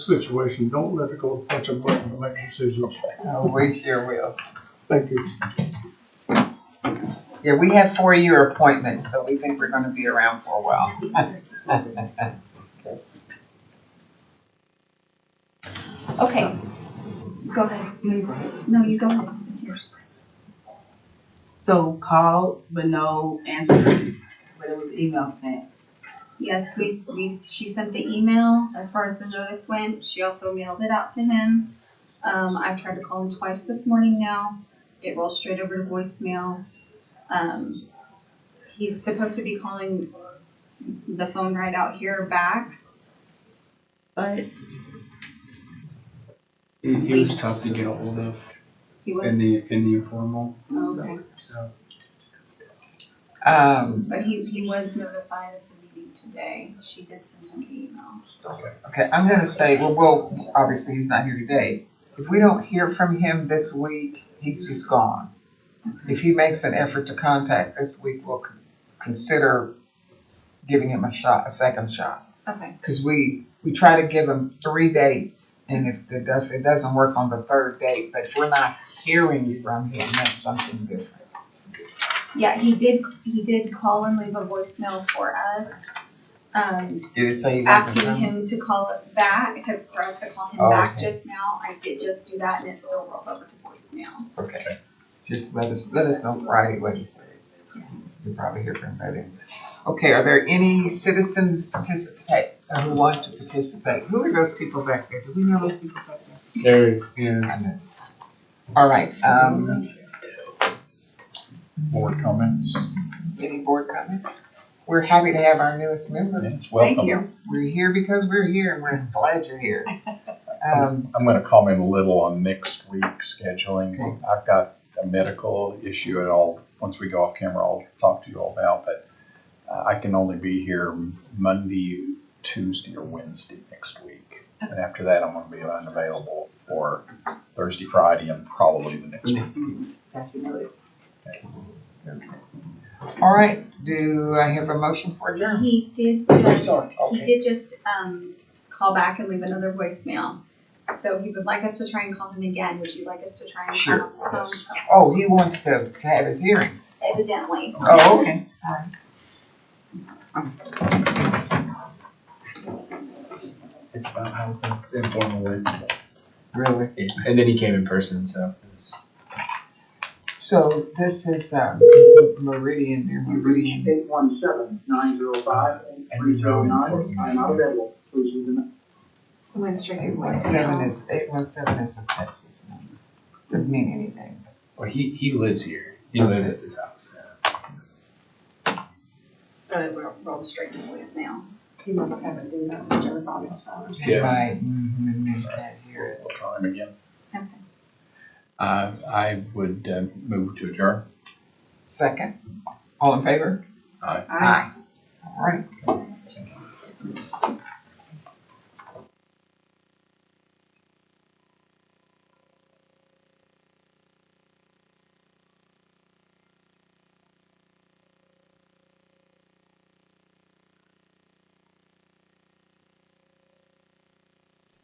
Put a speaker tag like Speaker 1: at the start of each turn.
Speaker 1: situation, don't let it go punch a button to make decisions.
Speaker 2: Oh, we sure will.
Speaker 1: Thank you.
Speaker 2: Yeah, we have four-year appointments, so we think we're gonna be around for a while.
Speaker 3: Okay, s- go ahead. No, you go ahead. It's yours.
Speaker 4: So called, but no answer, but it was email sent.
Speaker 3: Yes, we, we, she sent the email as far as the notice went. She also mailed it out to him. Um, I tried to call him twice this morning now. It rolls straight over to voicemail. Um, he's supposed to be calling the phone right out here back, but
Speaker 5: He, he was tough to get a hold of
Speaker 3: he
Speaker 5: in
Speaker 3: was,
Speaker 5: the in the informal.
Speaker 3: okay.
Speaker 5: So
Speaker 2: Um,
Speaker 3: But he, he was notified of the meeting today. She did send him the email.
Speaker 2: okay, I'm gonna say, well, well, obviously, he's not here today. If we don't hear from him this week, he's just gone. If he makes an effort to contact this week, we'll con- consider giving him a shot, a second shot.
Speaker 3: Okay,
Speaker 2: Cause we, we try to give him three dates, and if it does, it doesn't work on the third date, but if we're not hearing from him, that's something different.
Speaker 3: yeah, he did, he did call and leave a voicemail for us. Um,
Speaker 2: Did it say he wasn't
Speaker 3: asking
Speaker 2: coming?
Speaker 3: him to call us back, to, for us to call him
Speaker 2: Oh,
Speaker 3: back
Speaker 2: okay.
Speaker 3: just now, I did just do that and it still rolled over to voicemail.
Speaker 2: Okay, just let us, let us know Friday what he says. You'll probably hear from him by then. Okay, are there any citizens participate, uh, who want to participate? Who are those people back there? Do we know those people back there?
Speaker 5: there, yeah.
Speaker 2: I know. All right, um,
Speaker 6: board comments.
Speaker 2: any board comments? We're happy to have our newest member.
Speaker 6: Yes,
Speaker 2: Thank
Speaker 6: welcome.
Speaker 2: you. We're here because we're here and we're glad you're here. Um,
Speaker 6: I'm gonna comment a little on next week scheduling.
Speaker 2: Okay.
Speaker 6: I've got a medical issue and I'll, once we go off camera, I'll talk to you all about, but uh, I can only be here Monday, Tuesday, or Wednesday next week. And after that, I'm gonna be unavailable for Thursday, Friday, and probably the next
Speaker 5: Mm.
Speaker 6: week.
Speaker 2: all right, do I have a motion for adjournment?
Speaker 3: He did just,
Speaker 2: sorry, okay.
Speaker 3: he did just, um, call back and leave another voicemail. So he would like us to try and call him again, would you like us to try and
Speaker 2: Sure,
Speaker 3: call him on his phone?
Speaker 2: Oh, he wants to, to have his hearing.
Speaker 3: Evidently.
Speaker 2: Oh, okay.
Speaker 5: It's about how informal it is.
Speaker 2: Really?
Speaker 5: And then he came in person, so it was
Speaker 2: So this is, um, Meridian, near Meridian.
Speaker 7: Eight one seven nine zero five eight three zero nine, I am not available, please leave a message.
Speaker 3: Went straight
Speaker 2: Eight one seven is, eight one seven is a Texas number. Doesn't mean anything.
Speaker 5: well he he lives here. He lives at this house.
Speaker 3: So it ro- rolled straight to voicemail. He must have a do not disturb on his phone.
Speaker 5: Yeah.
Speaker 2: Right, mhm, and then can't hear it.
Speaker 6: We'll try him again.
Speaker 3: Okay.
Speaker 6: Uh, I would uh, move to adjourn.
Speaker 2: Second, all in favor?
Speaker 6: Aye.
Speaker 2: Aye. All right.